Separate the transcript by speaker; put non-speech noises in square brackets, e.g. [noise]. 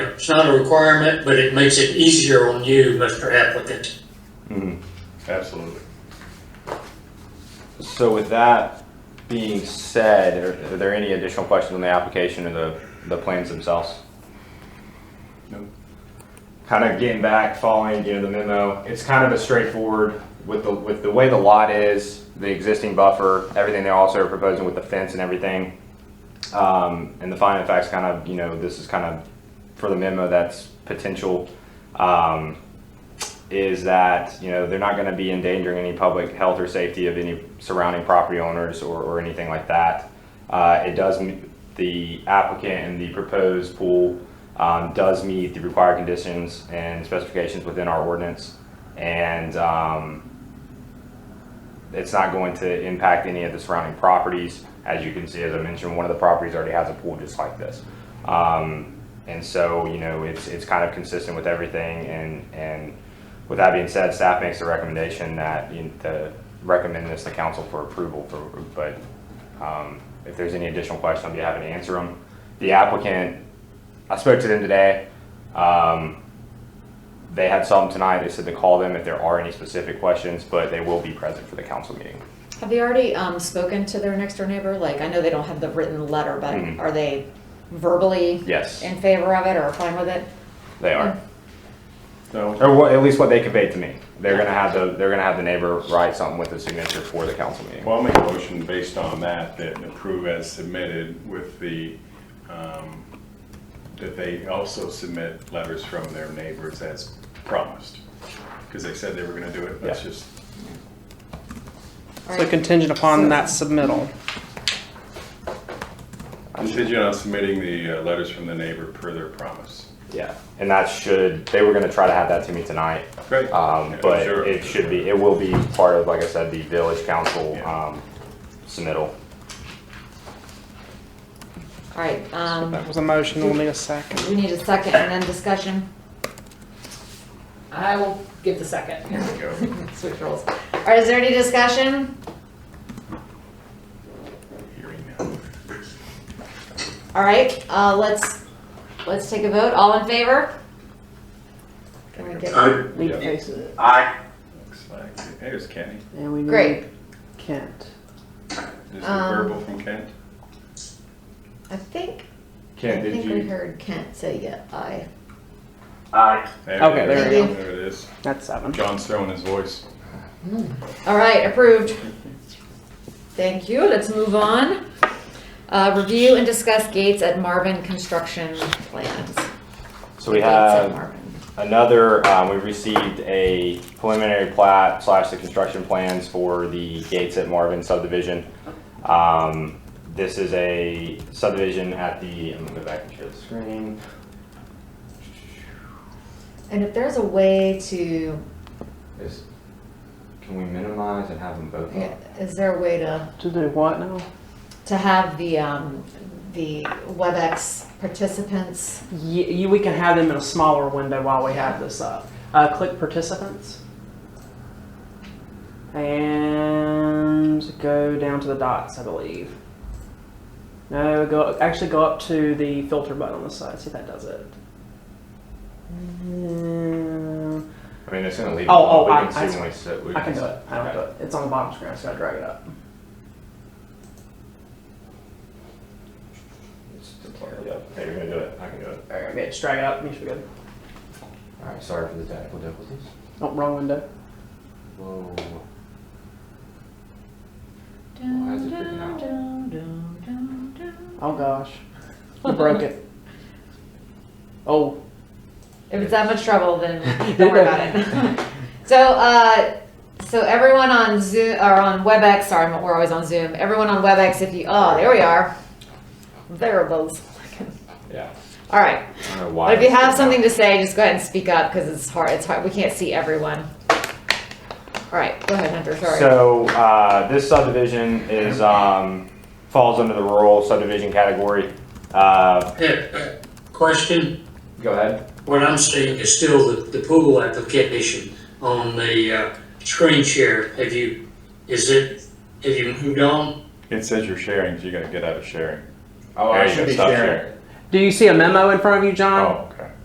Speaker 1: It's not a requirement, but it makes it easier on you, Mr. Applicant.
Speaker 2: Absolutely.
Speaker 3: So with that being said, are are there any additional questions on the application or the, the plans themselves?
Speaker 2: No.
Speaker 3: Kind of getting back, following, you know, the memo, it's kind of a straightforward, with the, with the way the lot is, the existing buffer, everything they're also proposing with the fence and everything. Um, and the finding of facts kind of, you know, this is kind of for the memo that's potential. Um, is that you know they're not going to be endangering any public health or safety of any surrounding property owners or, or anything like that. Uh, it does meet the applicant and the proposed pool um, does meet the required conditions and specifications within our ordinance, and um, it's not going to impact any of the surrounding properties. As you can see, as I mentioned, one of the properties already has a pool just like this. Um, and so, you know, it's, it's kind of consistent with everything and, and with that being said, staff makes the recommendation that, you, to recommend this to council for approval for, but, um, if there's any additional questions, I'll be happy to answer them. The applicant, I spoke to them today. Um, they had some tonight. They said to call them if there are any specific questions, but they will be present for the council meeting.
Speaker 4: Have they already um, spoken to their next door neighbor? Like, I know they don't have the written letter, but
Speaker 3: Mhm.
Speaker 4: are they verbally
Speaker 3: Yes,
Speaker 4: in favor of it or fine with it?
Speaker 3: they are.
Speaker 2: So,
Speaker 3: Or what, at least what they conveyed to me. They're gonna have the, they're gonna have the neighbor write something with the signature for the council meeting.
Speaker 2: well, I'll make a motion based on that, that approve as submitted with the, um, that they also submit letters from their neighbors as promised. Because they said they were gonna do it, that's
Speaker 3: Yeah.
Speaker 2: just,
Speaker 4: All
Speaker 5: So
Speaker 4: right.
Speaker 5: contingent upon that submittal.
Speaker 2: contingent on submitting the uh, letters from the neighbor per their promise.
Speaker 3: Yeah, and that should, they were gonna try to have that to me tonight.
Speaker 2: Great.
Speaker 3: Um,
Speaker 2: Yeah,
Speaker 3: but
Speaker 2: sure.
Speaker 3: it should be, it will be part of, like I said, the village council,
Speaker 2: Yeah.
Speaker 3: um, submittal.
Speaker 4: All right, um,
Speaker 5: That was a motion, we'll need a second.
Speaker 4: we need a second and then discussion.
Speaker 6: I will give the second.
Speaker 2: There we go.
Speaker 6: [laughs]
Speaker 4: Switch roles. All right, is there any discussion?
Speaker 2: Hearing now.
Speaker 4: All right, uh, let's, let's take a vote. All in favor? Can we
Speaker 1: Uh,
Speaker 4: get,
Speaker 7: Lee
Speaker 2: Yeah.
Speaker 7: Pace,
Speaker 2: Looks like- Hey, there's Kenny.
Speaker 7: and we
Speaker 4: Great.
Speaker 7: need Kent.
Speaker 2: Is there
Speaker 4: Um,
Speaker 2: verbal from Kent?
Speaker 4: I think, I
Speaker 3: Ken, did
Speaker 4: think we
Speaker 3: you?
Speaker 4: heard Kent say yeah, aye.
Speaker 5: Okay, there
Speaker 4: we go.
Speaker 2: There it is.
Speaker 5: That's seven.
Speaker 2: John's throwing his voice.
Speaker 4: All right, approved. Thank you. Let's move on. Uh, review and discuss gates at Marvin construction plans.
Speaker 3: So we
Speaker 4: Gates at
Speaker 3: have
Speaker 4: Marvin.
Speaker 3: another, um, we received a preliminary plat slash the construction plans for the Gates at Marvin subdivision. Um, this is a subdivision at the, I'm gonna go back and share the screen.
Speaker 4: And if there's a way to,
Speaker 3: Is, can we minimize and have them both
Speaker 4: yeah, is there a way to,
Speaker 7: To do what now?
Speaker 4: to have the, um, the WebEx participants?
Speaker 5: You, you, we can have them in a smaller window while we have this up. Uh, click participants. And go down to the dots, I believe. No, go, actually go up to the filter button on the side, see if that does it. Um,
Speaker 3: I mean, it's gonna leave.
Speaker 5: Oh, oh,
Speaker 3: we
Speaker 5: I-
Speaker 3: can
Speaker 5: I-
Speaker 3: see when we sit. we
Speaker 5: I can do
Speaker 3: sit.
Speaker 5: it. I don't do it. It's on the bottom screen, so I drag it up.
Speaker 3: It's just part- yeah. Hey, you're gonna do it. I can do it.
Speaker 5: All right, okay, just drag it up. You should be good.
Speaker 3: All right. Sorry for the technical difficulties.
Speaker 5: Oh, wrong window.
Speaker 3: Whoa. Why is it freaking out?
Speaker 5: Oh gosh, you broke it. Oh,
Speaker 4: If it's that much trouble, then don't worry about it. So, uh, so everyone on Zoom, or on WebEx, sorry, we're always on Zoom. Everyone on WebEx, if you, oh, there we are. There are those.
Speaker 3: Yeah.
Speaker 4: [laughs] All right.
Speaker 3: I don't know why.
Speaker 4: But if you
Speaker 3: it's
Speaker 4: have
Speaker 3: freaking
Speaker 4: something
Speaker 3: out.
Speaker 4: to say, just go ahead and speak up because it's hard. It's hard. We can't see everyone. All right, go ahead, Hunter. Sorry.
Speaker 3: So, uh, this subdivision is, um, falls under the rural subdivision category. Uh,
Speaker 1: Yeah, Question,
Speaker 3: go ahead.
Speaker 1: what I'm seeing is still the, the pool application on the, uh, screen share. Have you, is it, have you moved on?
Speaker 2: It says you're sharing, so you gotta get out of sharing.
Speaker 3: Oh,
Speaker 2: There you go. Stop sharing.
Speaker 5: do you see a memo in front of you, John?
Speaker 2: Oh,